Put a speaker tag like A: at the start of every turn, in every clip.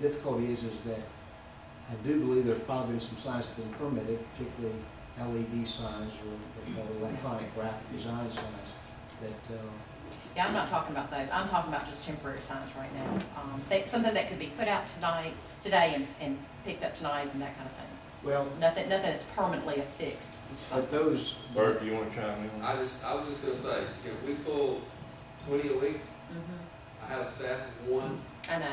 A: The difficulty is, is that I do believe there's probably been some signs that have been permitted, particularly LED signs or what they call electronic graphic design signs, that, uh,
B: Yeah, I'm not talking about those. I'm talking about just temporary signs right now. Um, they- Something that could be put out tonight, today and, and picked up tonight and that kind of thing.
A: well,
B: Nothing, nothing that's permanently affixed. to
A: but
B: something.
A: those,
C: Bert, do you want to chime in?
D: I just, I was just gonna say, if we pull twenty a week,
B: Mhm.
D: I have a staff of one,
B: I know,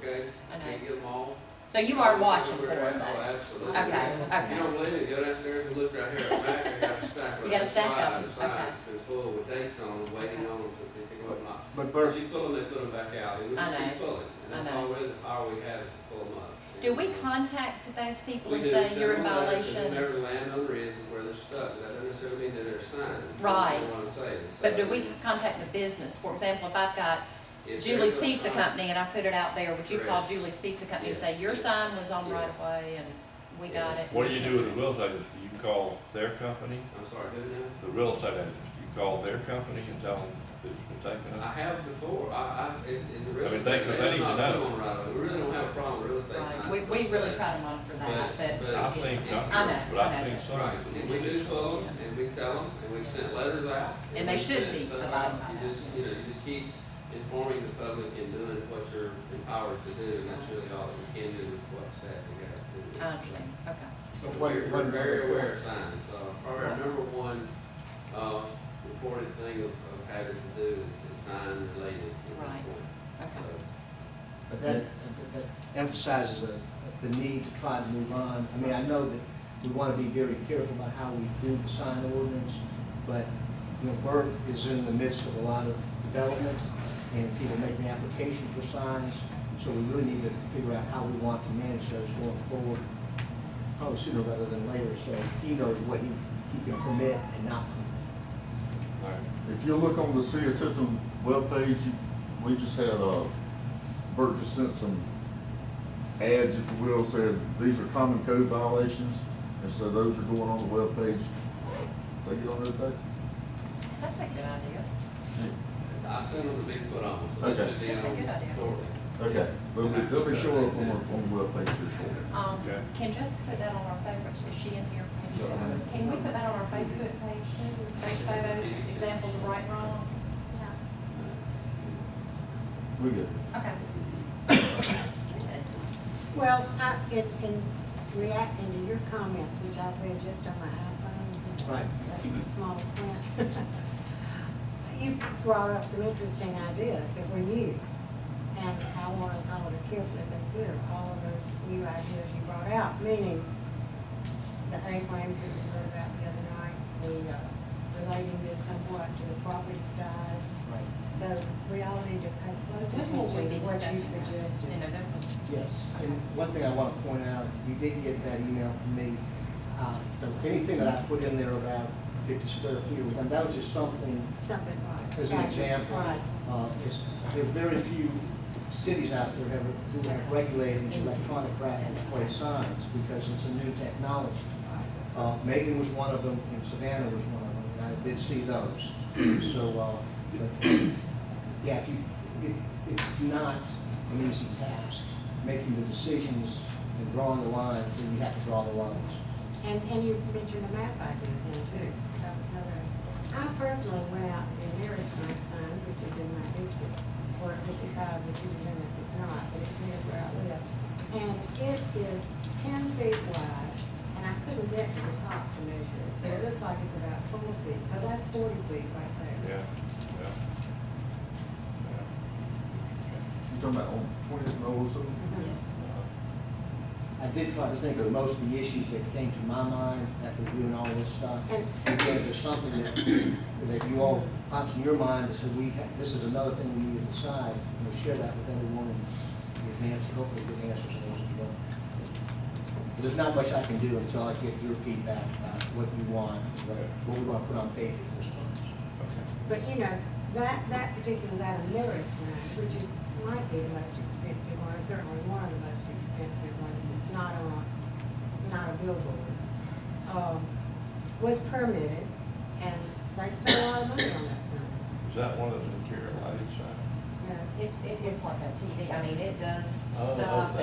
D: okay?
B: I know.
D: Can't get them all.
B: So you are watching for
D: Oh,
B: them though.
D: absolutely.
B: Okay,
D: You
B: okay.
D: don't believe it, go downstairs and look right here, back, I got a stack.
B: You got a stack of
D: them.
B: them, okay.
D: Signs, they're full with dates on them, waiting on them to see if they go or not.
A: but
D: But
A: Bert,
D: you pull them, they put them back out, and we
B: I
D: just keep
B: know.
D: pulling,
B: I
D: and that's
B: know.
D: all really the power we have is to pull them up.
B: Do we
D: And, uh,
B: contact those people
D: we
B: and
D: do
B: say
D: send
B: you're in
D: them letters, and
B: violation?
D: Whoever landowner is and where they're stuck, that doesn't necessarily mean that they're signed.
B: Right.
D: That's what I'm saying. So,
B: But do we contact the business? For example, if I've got
D: if
B: Julie's
D: there's a-
B: Pizza Company and I put it out there, would you call
D: Correct.
B: Julie's Pizza Company and
D: Yes.
B: say your sign was on
D: Yes.
B: right of way and we got it?
D: Yes.
C: What do you do with the real estate agents? Do you call their company,
D: I'm sorry, who now?
C: the real estate agents? Do you call their company and tell them that you've been taking
D: I
C: it?
D: have before, I, I, in, in
C: I
D: the real
C: mean,
D: estate.
C: they- 'cause they need to
D: I'm not
C: know.
D: going right away. We really don't have a problem with real estate
B: Right.
D: signs.
B: We, we really try to monitor that, but.
C: I've seen some,
B: I know,
C: but
B: I
C: I've
B: know.
C: seen some.
D: Right,
C: that
D: and we do pull, 'em, and we tell them, and we've sent letters out.
B: And they
D: we've
B: should
D: sent
B: be
D: stuff
B: abiding by
D: out. You
B: that.
D: just, you know, you just keep informing the public and doing what you're empowered to do, and that's really all that we can do with what staff we got to do.
B: I understand, um, okay.
A: but one,
D: We're, we're
A: one
D: very aware
A: very,
D: of signs, uh, probably our number one, uh, reported thing of, of having to do is, is sign related at this
B: Right. Okay,
D: point. So,
A: but that, that that emphasizes the, the need to try to move on. I mean, I know that we want to be very careful about how we do the sign ordinance, but, you know, Bert is in the midst of a lot of development, and people making application for signs, so we really need to figure out how we want to manage those going forward, probably sooner rather than later, so he knows what he, he can permit and not permit.
C: All right.
E: If you look on the city of Tifton webpage, you- we just had, uh, Bert just sent some ads, if you will, said these are common code violations, and so those are going on the webpage. They get on there today?
B: that's a good idea.
D: I sent them to be put on, so that
E: Okay.
D: should be
B: That's a
D: on
B: good idea.
D: shortly.
E: Okay, they'll be, they'll be showing up on, our- on the webpage here shortly.
B: Um,
C: Okay.
B: can Jessica put that on our favorites, is she in here?
E: Yeah.
F: Can we put that on our Facebook page too, those photos, examples of right and wrong?
E: We good.
B: Okay.
G: Well, I, in, in reacting to your comments, which I've read just on my iPhone, this
A: Right.
G: that's the small print. You brought up some interesting ideas that were new, and I want us all to carefully consider all of those new ideas you brought out, meaning the A-frames that we heard about the other night, the, uh, relating this somewhat to the property size.
A: Right.
G: So we all need to pay close attention
B: When
G: to
B: will we be
G: what you
B: discussing that?
G: suggested.
B: In November?
A: Yes, and one thing I want to point out, you did get that email from me. Uh, but Anything that I put in there about fifty square feet, and that was just something
G: Something right.
A: as an
G: Gotcha.
A: example.
G: Right.
A: Uh, it's- There are very few cities out there have, who have regulated these electronic graphic display signs because it's a new technology. Uh, Macon was one of them, and Savannah was one of them, and I did see those. So, uh, but, yeah, if you, it, it's not an easy task, making the decisions and drawing the lines, then you have to draw the lines.
G: And, and you mentioned the map idea then too. That was another. I personally went out and did nearest my sign, which is in my district, or if it's out of the city limits, it's not, but it's near where I live. And it is ten feet wide, and I couldn't get to the top to measure it, but it looks like it's about four feet, so that's forty feet right there.
C: Yeah, yeah.
E: You talking about on twentieth and over, so?
G: Mhm.
B: Yes.
C: Uh,
A: I did try to think of most of the issues that came to my mind after doing all this stuff. And Again, if there's something that, that you all pops in your mind, that says we, ha- this is another thing we need to decide, and we share that with everyone in advance, and hopefully get answers to those as well. But There's not much I can do until I get your feedback about what you want, what what we want to put on paper for this one.
G: But you know, that, that particular, that Amira sign, which is, might be the most expensive one, certainly one of the most expensive ones, it's not on, not a billboard, um, was permitted, and they spent a lot of money on that sign.
C: Is that one of the interior lighting signs?
H: No,
G: It's, it's like a TV, I mean, it does
B: Oh,
G: stuff
B: okay.